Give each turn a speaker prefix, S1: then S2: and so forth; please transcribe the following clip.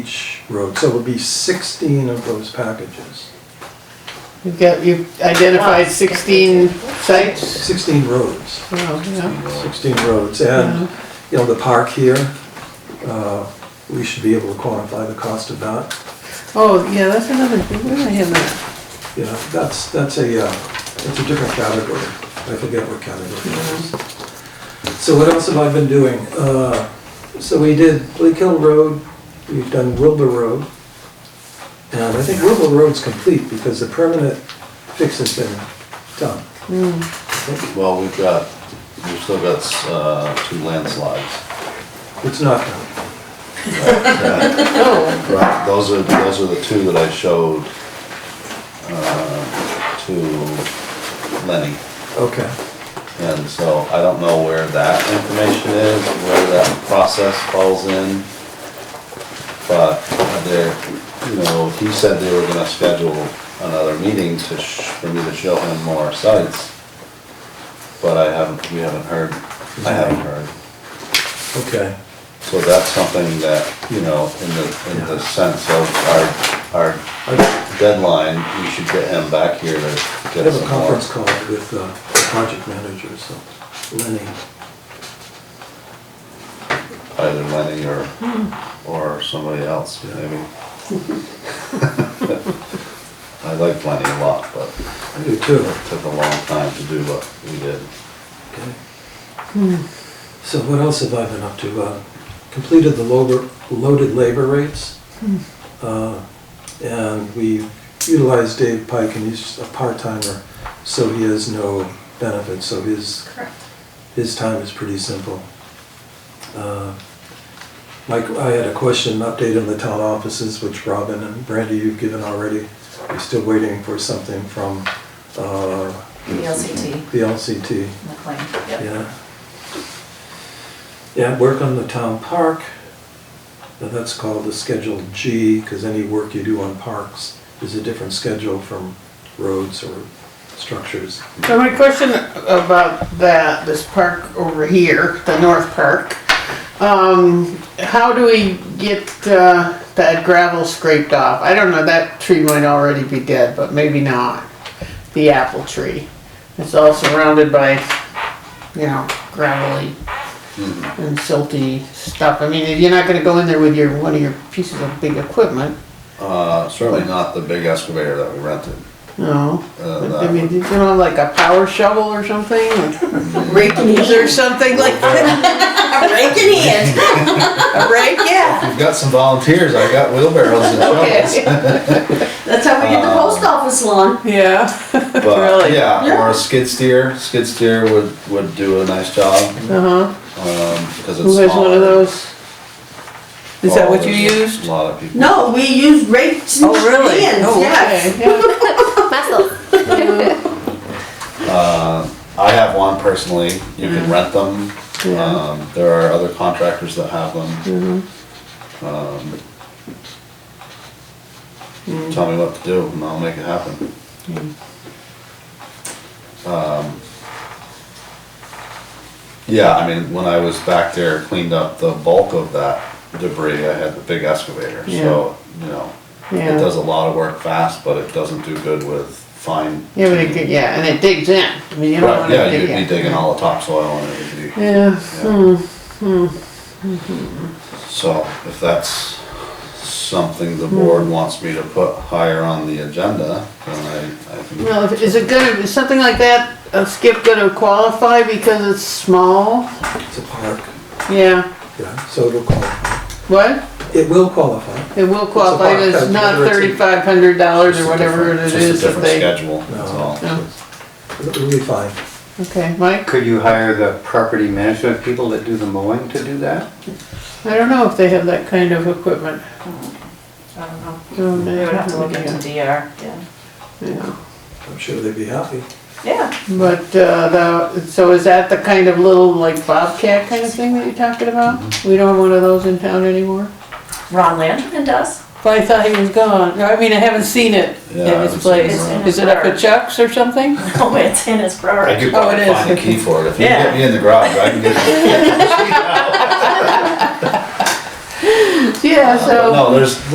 S1: road, so it would be sixteen of those packages,
S2: You've got, you've identified sixteen sites?
S1: sixteen roads,
S2: Oh, yeah.
S1: sixteen roads, and, you know, the park here, uh, we should be able to quantify the cost of that.
S2: Oh, yeah, that's another, thing. where did I have that?
S1: You know, that's, that's a, uh, that's a different category, I forget what category it is. So what else have I been doing? Uh, So we did Bleak Hill Road, we've done Wilbur Road, and I think Wilbur Road's complete because the permanent fix has been done.
S3: Well, we've got, we've still got, uh, two landslides.
S1: It's not done.
S2: Oh,
S3: Right, those are, those are the two that I showed, uh, to Lenny.
S1: Okay,
S3: And so I don't know where that information is, where that process falls in. But there, you know, he said they were gonna schedule another meeting to, sh- for me to show him more sites. But I haven't, we haven't heard, I haven't heard.
S1: okay.
S3: So that's something that, you know, in the, in the sense of our, our
S1: I
S3: deadline, we should get him back here to
S1: I
S3: get
S1: have a
S3: some
S1: conference
S3: more.
S1: call with uh, the project manager, so Lenny.
S3: Either Lenny or,
S2: Hmm.
S3: or somebody else, maybe. I like Lenny a lot, but
S1: I do too.
S3: it took a long time to do what we did.
S1: Okay. So what else have I been up to? Uh, Completed the lower- loaded labor rates. Uh, And we utilized Dave Pike, and he's a part-timer, so he has no benefits, so his,
S4: Correct.
S1: his time is pretty simple. Uh, Mike, I had a question, update on the town offices, which Robin and Brandy, you've given already. We're still waiting for something from uh,
S4: The LCT,
S1: the LCT.
S4: McLean, yep.
S1: Yeah. Yeah, work on the town park. Now, That's called the Schedule G, because any work you do on parks is a different schedule from roads or structures.
S2: so my question about that, this park over here, the North Park. Um, how do we get, uh, that gravel scraped off? I don't know, that tree might already be dead, but maybe not. The apple tree. It's all surrounded by, you know, gravelly and silty stuff. I mean, you're not gonna go in there with your, one of your pieces of big equipment,
S3: Uh, certainly not the big excavator that we rented.
S2: no.
S3: Uh,
S2: But,
S3: that
S2: I mean,
S3: would-
S2: you know, like a power shovel or something, or rake or something like that.
S4: A rake in hand.
S2: A rake, yeah.
S3: We've got some volunteers, I got wheelbarrows and shovels.
S2: Okay.
S4: That's how we did the post office lawn.
S2: Yeah.
S3: But
S2: Really?
S3: yeah, or
S4: Yeah.
S3: a skid steer, skid steer would, would do a nice job, um,
S2: Uh huh.
S3: because it's
S2: Who has one
S3: smaller.
S2: of those? Is that
S3: Oh,
S2: what you
S3: there's
S2: used?
S3: A lot of people.
S4: No, we used rakes and hands,
S2: Oh,
S4: yes.
S2: okay, yeah.
S3: I have one personally, you can
S2: Mm-hmm.
S3: rent them, um, there are other contractors that have them.
S2: Mm-hmm.
S3: Um,
S2: Mm.
S3: Tell me what to do and I'll make it happen. Um, Yeah, I mean, when I was back there, cleaned up the bulk of that debris, I had the big excavator, so, you know, it
S2: Yeah.
S3: does a lot of work fast, but it doesn't do good with fine.
S2: Yeah, but it, could- yeah, and it digs in. I mean, you don't
S3: Right,
S2: wanna
S3: yeah,
S2: dig
S3: you'd be
S2: in.
S3: digging all the topsoil and it'd be,
S2: Yeah, hmm,
S3: so if that's something the board wants me to put higher on the agenda, then I, I can.
S2: well, if- is it gonna, is something like that, a skip gonna qualify because it's small?
S1: It's a park,
S2: Yeah,
S1: yeah, so it'll qualify.
S2: what?
S1: It will qualify.
S2: It will qualify, but it's not
S1: It's a box,
S2: thirty-five hundred dollars
S3: just
S2: or
S3: a
S2: whatever
S3: different-
S2: it
S3: just a
S2: is that
S3: different
S2: they. Oh.
S3: Schedule, that's
S1: No.
S3: all.
S2: No.
S1: It'll be fine.
S2: Okay, Mike,
S5: Could you hire the property management people that do the mowing to do that?
S2: I don't know if they have that kind of equipment.
S4: I don't know.
S2: Oh, they
S4: We would Mm-hmm. have to
S2: don't
S4: look
S2: have
S4: into
S2: it,
S4: DR, yeah.
S2: Yeah,
S1: I'm sure they'd be happy.
S4: Yeah,
S2: but, uh, the, so is that the kind of little like bobcat kind of thing that you're talking about?
S3: Mm-hmm.
S2: We don't have one of those in town anymore?
S4: Ron Landman does.
S2: But I thought he was gone, I mean, I haven't seen it in
S3: Yeah, I
S2: his
S3: haven't
S2: place.
S3: seen
S4: it.
S2: Is it up at Chuck's or something?
S4: Oh, it's in his
S3: I
S4: brochure.
S3: could
S2: Oh, it
S3: probably
S2: is.
S3: find a key for it, if you
S4: Yeah.
S3: get me in the garage, I can get you.
S2: Yeah, so.
S3: No, there's,